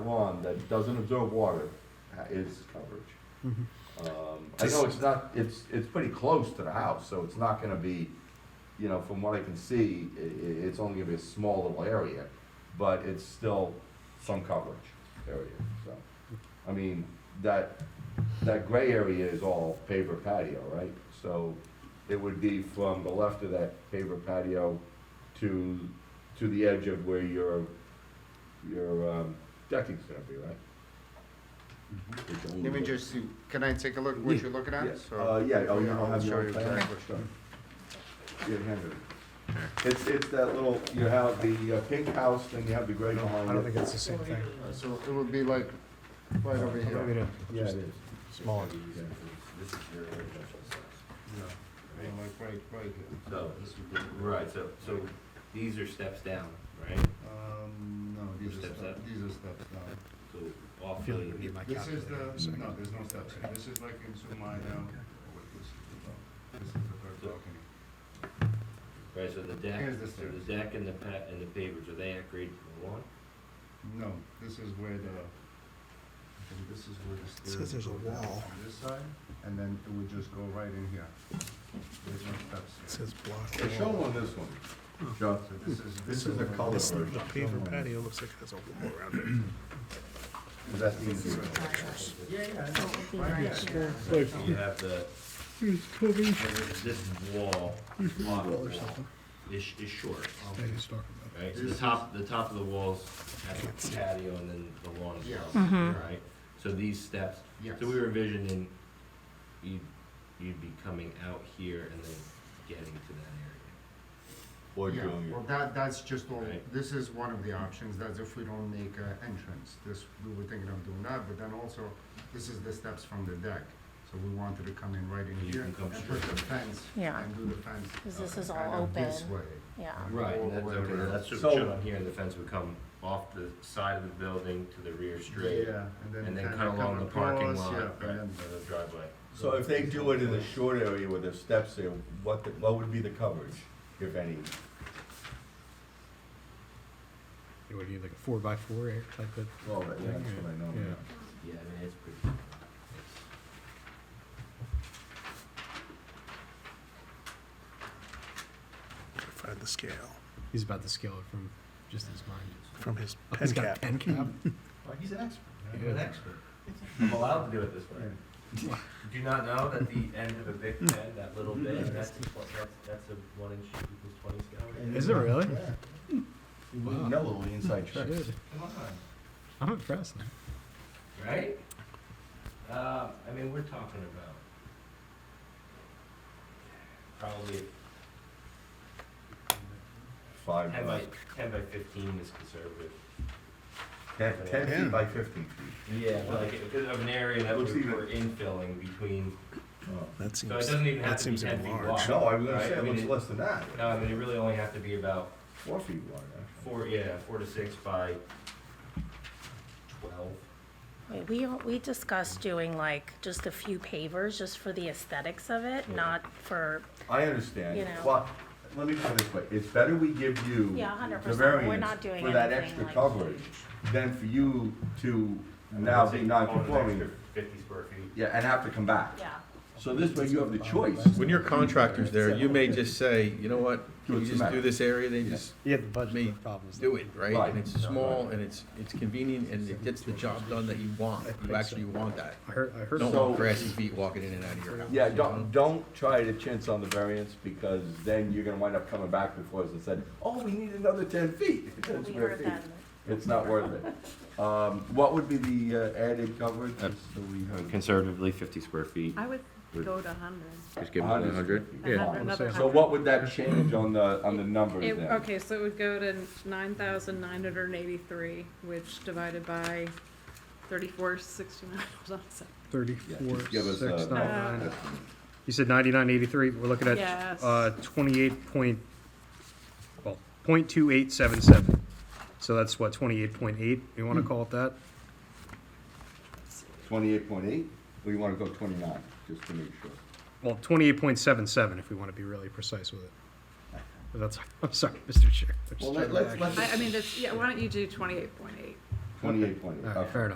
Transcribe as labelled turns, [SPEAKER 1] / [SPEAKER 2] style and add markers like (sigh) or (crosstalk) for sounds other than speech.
[SPEAKER 1] lawn that doesn't absorb water ha- is coverage.
[SPEAKER 2] Mm-hmm.
[SPEAKER 1] Um, I know it's not, it's, it's pretty close to the house, so it's not gonna be, you know, from what I can see, i- i- it's only gonna be a small little area, but it's still some coverage area, so. I mean, that, that gray area is all paver patio, right? So it would be from the left of that paver patio to, to the edge of where your, your, um, decking's gonna be, right? It's only-
[SPEAKER 3] Let me just see, can I take a look what you're looking at?
[SPEAKER 1] Yes,
[SPEAKER 3] So-
[SPEAKER 1] uh, yeah, oh, you
[SPEAKER 3] Yeah,
[SPEAKER 1] don't have
[SPEAKER 3] show
[SPEAKER 1] your
[SPEAKER 3] you
[SPEAKER 1] plan?
[SPEAKER 3] exactly.
[SPEAKER 1] Sure. Yeah, hand it. It's, it's that little, you have the uh, pink house, then you have the gray behind it.
[SPEAKER 4] I don't think it's the same thing.
[SPEAKER 3] Uh, So it would be like, right over
[SPEAKER 4] Maybe
[SPEAKER 3] here.
[SPEAKER 4] it
[SPEAKER 1] Yeah, it is.
[SPEAKER 4] is smaller.
[SPEAKER 1] Yeah.
[SPEAKER 5] This is your residential size.
[SPEAKER 3] Like right, right here.
[SPEAKER 5] So this would be, right, so, so these are steps down, right?
[SPEAKER 3] Um, no, these are
[SPEAKER 5] Steps
[SPEAKER 3] steps,
[SPEAKER 5] up.
[SPEAKER 3] these are steps, no.
[SPEAKER 5] So off the,
[SPEAKER 3] This is the, no, there's no steps here. This is like um, in Sumida. This is the third balcony.
[SPEAKER 5] right, so the deck,
[SPEAKER 3] Here's the
[SPEAKER 5] so
[SPEAKER 3] stairs.
[SPEAKER 5] the deck and the pa, and the pavers, are they anchored to the lawn?
[SPEAKER 3] No, this is where the, and this is where the stairs.
[SPEAKER 4] says there's a
[SPEAKER 3] go down
[SPEAKER 4] wall.
[SPEAKER 3] On this side, and then it would just go right in here. There's no steps here.
[SPEAKER 4] says block.
[SPEAKER 1] Hey, show 'em on this one, John.
[SPEAKER 3] So this is.
[SPEAKER 1] This is the
[SPEAKER 3] where
[SPEAKER 1] color
[SPEAKER 4] This, the
[SPEAKER 1] version.
[SPEAKER 4] paver patio looks like it has a wall around it.
[SPEAKER 1] Is that the easy one?
[SPEAKER 3] Yeah, yeah.
[SPEAKER 6] So it'll be right here.
[SPEAKER 5] So you have the, this this wall, block wall, is, is short, right? So the top, the top of the walls has the patio and then the lawn as
[SPEAKER 3] Yes.
[SPEAKER 5] well,
[SPEAKER 6] Mm-hmm.
[SPEAKER 5] right? So these steps,
[SPEAKER 3] Yes.
[SPEAKER 5] so we were envisioning you'd, you'd be coming out here and then getting to that area.
[SPEAKER 3] Yeah, well, that, that's just all,
[SPEAKER 5] Right.
[SPEAKER 3] this is one of the options, that's if we don't make an entrance, this, we were thinking of doing that, but then also, this is the steps from the deck, so we wanted to come in right in here
[SPEAKER 5] You can
[SPEAKER 3] and
[SPEAKER 5] come
[SPEAKER 3] put
[SPEAKER 5] straight
[SPEAKER 3] the fence,
[SPEAKER 6] Yeah.
[SPEAKER 3] and do the fence.
[SPEAKER 6] 'Cause this
[SPEAKER 3] uh,
[SPEAKER 6] is all
[SPEAKER 3] kind of This
[SPEAKER 6] open.
[SPEAKER 3] way.
[SPEAKER 6] Yeah,
[SPEAKER 5] Right,
[SPEAKER 3] Or
[SPEAKER 5] and that's
[SPEAKER 3] whatever.
[SPEAKER 5] okay, that's just
[SPEAKER 1] So-
[SPEAKER 5] shown here, the fence would come off the side of the building to the rear straight,
[SPEAKER 3] Yeah,
[SPEAKER 5] and then
[SPEAKER 3] kinda
[SPEAKER 5] cut along the
[SPEAKER 3] come
[SPEAKER 5] parking
[SPEAKER 3] across,
[SPEAKER 5] lot,
[SPEAKER 3] yeah,
[SPEAKER 5] right,
[SPEAKER 3] and then-
[SPEAKER 5] or the driveway.
[SPEAKER 1] So if they do it in the short area with the steps there, what, the- what would be the coverage, if any?
[SPEAKER 2] It would be like a four by four air type of.
[SPEAKER 1] Well, that's what I know.
[SPEAKER 2] Yeah.
[SPEAKER 5] Yeah, I mean, it's pretty.
[SPEAKER 4] Find the scale
[SPEAKER 2] He's about to scale it from just his mind.
[SPEAKER 4] from his
[SPEAKER 2] Oh,
[SPEAKER 4] pen
[SPEAKER 2] he's got a
[SPEAKER 4] cap.
[SPEAKER 2] pen cap.
[SPEAKER 5] Well, he's an expert,
[SPEAKER 2] I'm an
[SPEAKER 5] expert. I'm allowed to do it this way. Do you not know that the end of a big
[SPEAKER 1] Hmm.
[SPEAKER 5] pen, that little bit, that's, a tw- that's, that's a one inch equals twenty scale?
[SPEAKER 2] Is it really?
[SPEAKER 1] You wouldn't know the
[SPEAKER 5] (laughs)
[SPEAKER 1] inside tricks.
[SPEAKER 2] Shit.
[SPEAKER 5] Come on.
[SPEAKER 2] I'm impressed. now.
[SPEAKER 5] Right? Uh, I mean, we're talking about probably
[SPEAKER 1] Five
[SPEAKER 5] ten
[SPEAKER 1] by,
[SPEAKER 5] by, ten by fifteen is conservative.
[SPEAKER 1] ten, ten
[SPEAKER 4] Yeah.
[SPEAKER 1] feet by fifteen feet.
[SPEAKER 5] Yeah. Like, because of an area that
[SPEAKER 1] Looks
[SPEAKER 5] we're
[SPEAKER 1] even-
[SPEAKER 5] we're infilling between,
[SPEAKER 1] Oh.
[SPEAKER 4] That
[SPEAKER 5] so it doesn't even have to be ten feet wide.
[SPEAKER 1] No, I was gonna
[SPEAKER 5] right?
[SPEAKER 1] say,
[SPEAKER 5] I
[SPEAKER 1] it
[SPEAKER 5] mean,
[SPEAKER 1] looks less than that,
[SPEAKER 5] No, I mean, it really only have to be about
[SPEAKER 1] four feet wide, actually.
[SPEAKER 5] four, yeah, four to six by twelve.
[SPEAKER 6] Wait, we, we discussed doing like just a few pavers, just for the aesthetics of it,
[SPEAKER 5] Yeah.
[SPEAKER 6] not for,
[SPEAKER 1] I understand,
[SPEAKER 6] You know.
[SPEAKER 1] but, let me put it this way, it's better we give you
[SPEAKER 6] yeah, hundred
[SPEAKER 1] the
[SPEAKER 6] percent, we're not
[SPEAKER 1] variance
[SPEAKER 6] doing
[SPEAKER 1] for that
[SPEAKER 6] anything
[SPEAKER 1] extra
[SPEAKER 6] like
[SPEAKER 1] coverage
[SPEAKER 6] huge.
[SPEAKER 1] than for you to now be non-conforming.
[SPEAKER 5] oh, Fifty square feet.
[SPEAKER 1] Yeah, and have to come back.
[SPEAKER 6] Yeah,
[SPEAKER 1] So this way you have the choice.
[SPEAKER 7] When your contractor's there, you may just say, you know what,
[SPEAKER 1] Do it
[SPEAKER 7] you just
[SPEAKER 1] tomorrow."
[SPEAKER 7] do this area, they just
[SPEAKER 2] You have the budget
[SPEAKER 7] Me.
[SPEAKER 2] for problems.
[SPEAKER 7] do it, right?
[SPEAKER 1] Right.
[SPEAKER 7] And it's small, and it's, it's convenient, and it gets the job done that you want, you actually want that.
[SPEAKER 2] I heard, I heard.
[SPEAKER 7] Don't
[SPEAKER 1] So-
[SPEAKER 7] want grassy feet walking in and out of your house.
[SPEAKER 1] Yeah, don't, don't try to chintz on the variance because then you're gonna wind up coming back before us and said, oh, we need another ten feet. (laughs) 10
[SPEAKER 6] we
[SPEAKER 1] square
[SPEAKER 6] heard
[SPEAKER 1] feet.
[SPEAKER 6] that,
[SPEAKER 1] It's not worth it. Um, what would be the uh, added coverage? Just so we heard.
[SPEAKER 5] Conservatively fifty square feet.
[SPEAKER 8] I would
[SPEAKER 5] Would-
[SPEAKER 8] go to hundred.
[SPEAKER 5] Just
[SPEAKER 1] give them the 100?
[SPEAKER 8] Another- another
[SPEAKER 1] So
[SPEAKER 8] 100.
[SPEAKER 1] what would that change on the, on the numbers
[SPEAKER 8] It,
[SPEAKER 1] then?
[SPEAKER 8] okay, so it would go to nine thousand nine hundred and eighty-three, which divided by thirty-four sixty-nine, (laughs) hold on a second.
[SPEAKER 1] Yeah,
[SPEAKER 2] Thirty-four,
[SPEAKER 1] just give us
[SPEAKER 2] six, nine,
[SPEAKER 1] a-
[SPEAKER 8] nine.
[SPEAKER 2] nine. You said ninety-nine, eighty-three. We're looking at,
[SPEAKER 8] Yes.
[SPEAKER 2] uh, twenty-eight point, well, point two eight seven seven. So that's what, twenty-eight point eight? You
[SPEAKER 1] Hmm.
[SPEAKER 2] wanna call it that?
[SPEAKER 1] Twenty-eight point eight, or you wanna go twenty-nine, just to make sure?
[SPEAKER 2] Well, twenty-eight point seven seven, if we wanna be really precise with it. But That's, (laughs) I'm sorry, Mr. Chair. I'm just
[SPEAKER 1] Well,
[SPEAKER 2] trying
[SPEAKER 1] let-
[SPEAKER 2] to
[SPEAKER 1] let's,
[SPEAKER 2] relax.
[SPEAKER 1] let's.
[SPEAKER 8] I, I mean, that's, yeah, why don't you do twenty-eight point eight?
[SPEAKER 9] Twenty-eight point eight.
[SPEAKER 1] All right, Oh, fair enough.